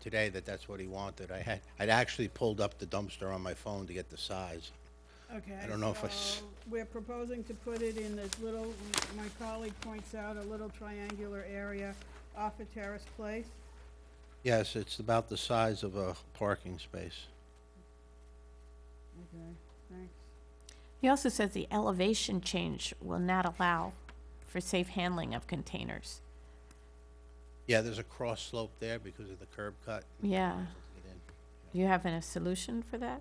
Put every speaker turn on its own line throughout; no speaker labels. today that that's what he wanted. I had, I'd actually pulled up the dumpster on my phone to get the size.
Okay.
I don't know if I s-
so We're proposing to put it in this little, my colleague points out, a little triangular area off of Terrace Place.
Yes, it's about the size of a parking space.
Okay, thanks.
He also says the elevation change will not allow for safe handling of containers.
Yeah, there's a cross slope there because of the curb cut.
Yeah.
Get in.
Do you have a solution for that?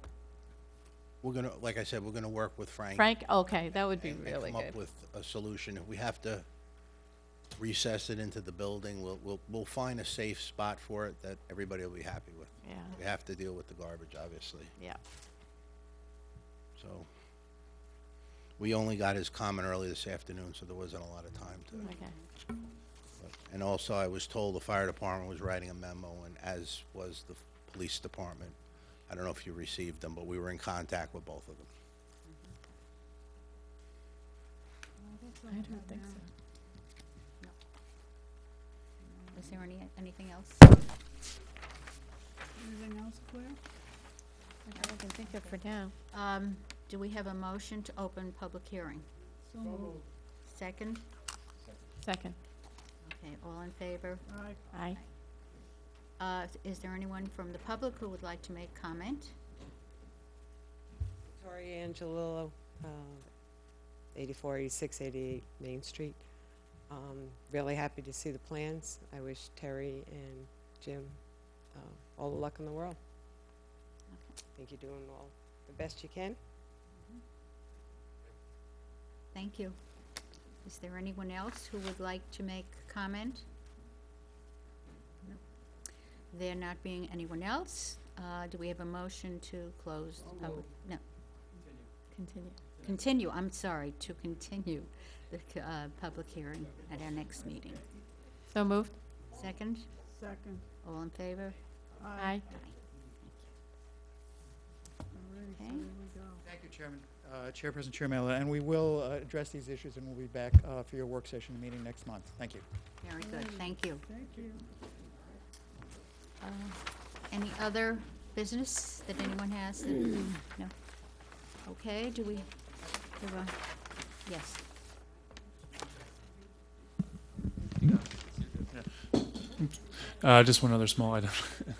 We're gonna, like I said, we're gonna work with Frank.
Frank, okay, that would be
and-
really
And come up
good.
with a solution. If we have to recess it into the building, we'll, we'll, we'll find a safe spot for it that everybody will be happy with.
Yeah,
We have to deal with the garbage, obviously,
yeah.
so. We only got his comment early this afternoon, so there wasn't a lot of time to.
Okay.
But- And also, I was told the fire department was writing a memo, and as was the police department. I don't know if you received them, but we were in contact with both of them.
I don't think so.
Was there any, anything else? I
Anything else, Claire?
can think
For now.
Um, do we have a motion to open public hearing?
So moved.
Second?
Second.
Okay, all in favor?
Aye.
Aye.
Uh, is there anyone from the public who would like to make comment?
Tori Angelillo, uh, 84, 86, 88 Main Street. Um, Really happy to see the plans. I wish Terry and Jim uh, all the luck in the world.
Okay.
I think you're doing all the best you can.
Thank you. Is there anyone else who would like to make comment? No. There not being anyone else, uh, do we have a motion to close? the public? No,
Continue.
continue, I'm sorry, to continue the, c- uh, public hearing at our next meeting.
So moved?
Second?
Second.
All in favor?
Aye.
Alrighty, so
Okay.
here we go.
Thank you, Chairman, uh, Chairperson Chirmella, and we will uh, address these issues, and we'll be back uh, for your work session meeting next month. Thank you.
Very good, thank you.
Thank you.
Any other business that anyone has? that- No? Okay, do we, do we- yes.
Uh, just one other small item.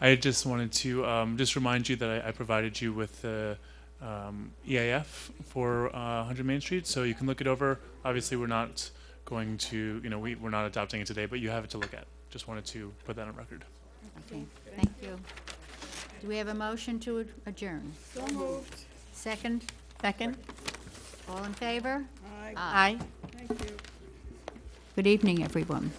I just wanted to um, just remind you that I, I provided you with the um, EAF for uh, 100 Main Street, so you can look it over. Obviously, we're not going to, you know, we, we're not adopting it today, but you have it to look at. Just wanted to put that on record.
Okay, thank you. Do we have a motion to ad- adjourn?
So moved.
Second?
Second?
All in favor?
Aye,
Aye.
Aye.
thank you.
Good evening, everyone.